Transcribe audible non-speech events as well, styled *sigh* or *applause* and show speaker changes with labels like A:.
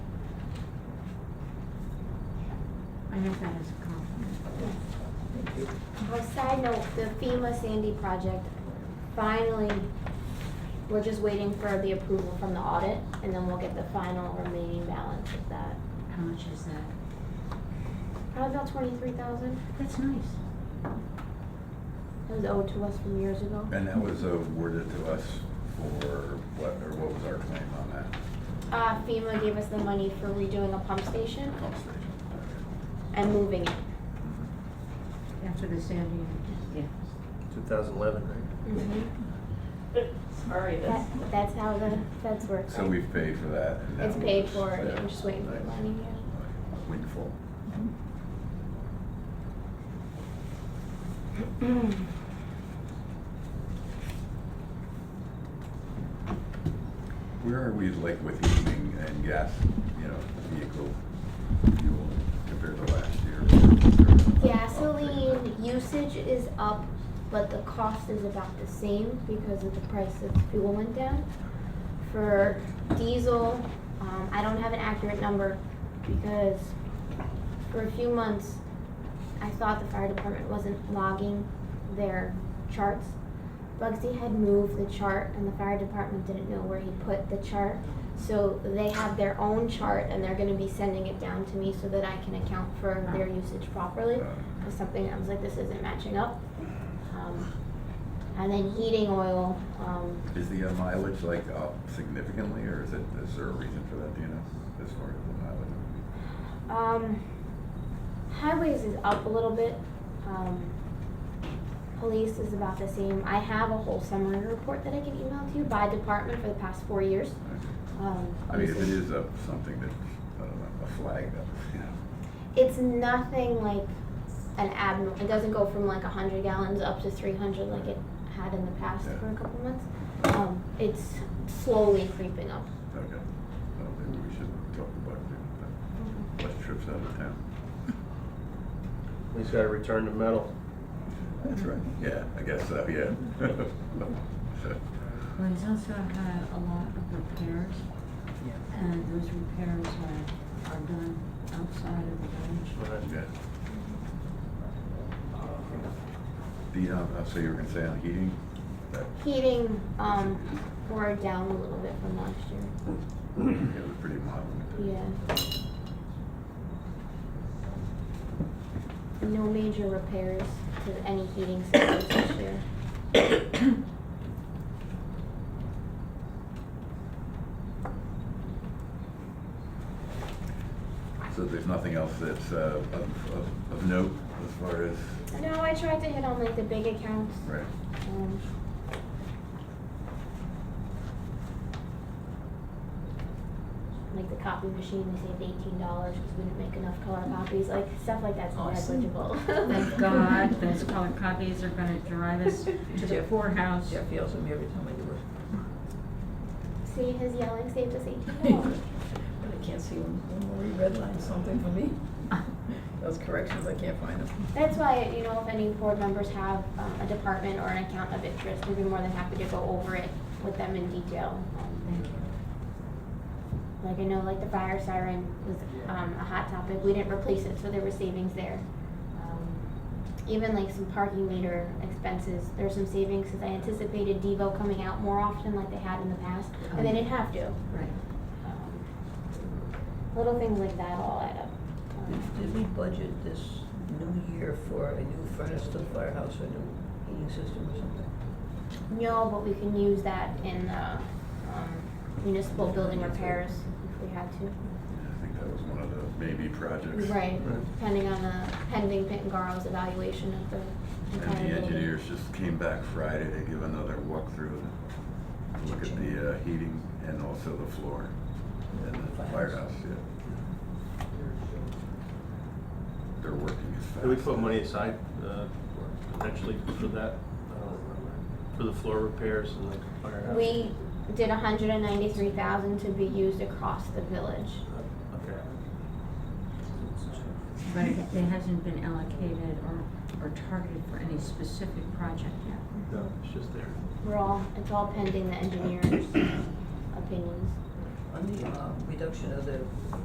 A: meant that as a compliment.
B: On side note, the FEMA Sandy project, finally, we're just waiting for the approval from the audit, and then we'll get the final remaining balance of that.
A: How much is that?
B: Probably about twenty-three thousand,
A: That's nice.
B: it was owed to us from years ago.
C: And that was awarded to us for what, or what was our claim on that
B: Uh, FEMA gave us the money for redoing a pump station
C: pump station?
B: and moving it.
A: After the Sandy, yeah.
D: 2011, right?
E: Mm-hmm. Sorry,
B: That, that's
E: that's,
B: how the feds work.
C: So
B: right?
C: we've paid for that and that
B: It's paid
C: was-
B: for, and
C: yeah.
B: we're just waiting for the money, yeah.
C: Windfall.
E: Mm.
C: Where are we like with heating and gas, you know, vehicle fuel compared to last year?
B: Gasoline usage is up, but the cost is about the same because of the price of fuel went down. For diesel, um, I don't have an accurate number because for a few months, I thought the fire department wasn't logging their charts. Bugsy had moved the chart and the fire department didn't know where he put the chart. So they have their own chart and they're gonna be sending it down to me so that I can account for their usage properly.
C: Uh,
B: Cause something, I was like, this isn't matching up. Um, And then heating oil, um,
C: Is the uh, mileage like up significantly or is it, is there a reason for that, do you know, as far as the mileage?
B: um, highways is up a little bit. Um, police is about the same. I have a whole summary report that I can email to you by department for the past four years. Um,
C: I mean, if it is up something that, I don't know, a flag uh, up, you know.
B: it's nothing like an abnormal. It doesn't go from like 100 gallons up to 300 like it had in the past
C: Yeah.
B: for a couple months. Um, it's slowly creeping up.
C: Okay, well, maybe we should talk about doing that. Less trips out of town.
D: We just got to return to metal.
C: That's right. Yeah, I guess so, yeah. *laughs*
A: Well, he's also had a lot of repairs. And those repairs are, are done outside of the village.
C: Yeah. The, um, uh, so you were gonna say on heating, that,
B: Heating um, wore down a little bit from last year.
C: it was pretty mild.
B: Yeah. No major repairs to any heating systems this year.
C: So there's nothing else that's, uh, of, of, of note as far as,
B: No, I tried to hit on like the big accounts.
C: right?
B: Um, Like the copy machine, we saved eighteen dollars because we didn't make enough color copies, like stuff like that's
E: Awesome.
B: negligible.
A: Thank
B: *laughs*
A: God, *laughs* those color copies are gonna drive us to the
E: Jeff-
A: poorhouse.
E: Jeff yells at me every time I do it,
B: See, his yelling saved us eighteen dollars.
E: *laughs* but I can't see when, when Marie redlined something for me. Those corrections, I can't find them.
B: That's why, you know, if any board members have um, a department or an account of interest, we'd be more than happy to go over it with them in detail. Um,
A: *laughs* Thank you.
B: Like I know, like the fire siren was um, a hot topic. We didn't replace it, so there were savings there. Um, even like some parking meter expenses, there's some savings because I anticipated Devo coming out more often, like they had in the past, and they didn't have to.
A: Right.
B: Um, little things like that all add up.
E: Did- Did we budget this new year for a new furnace to the firehouse, or a new heating system or something?
B: No, but we can use that in uh, um, municipal building repairs if we had to.
C: I think that was one of the maybe projects.
B: Right,
D: Right.
B: depending on the pending Pittengaro's evaluation of the
C: And
B: entire
C: the
B: building.
C: engineers just came back Friday to give another walkthrough, to look at the uh, heating and also the floor and the firehouse, yeah. They're working as fast.
D: Did we put money aside uh, for- potentially for that, uh, for the floor repairs and the firehouse?
B: We did hundred and ninety-three thousand to be used across the village.
D: Uh, Okay.
A: But it it hasn't been allocated or, or targeted for any specific project yet.
D: No, it's just there.
B: We're all, it's all pending the engineer's opinions.
E: On the uh, reduction of the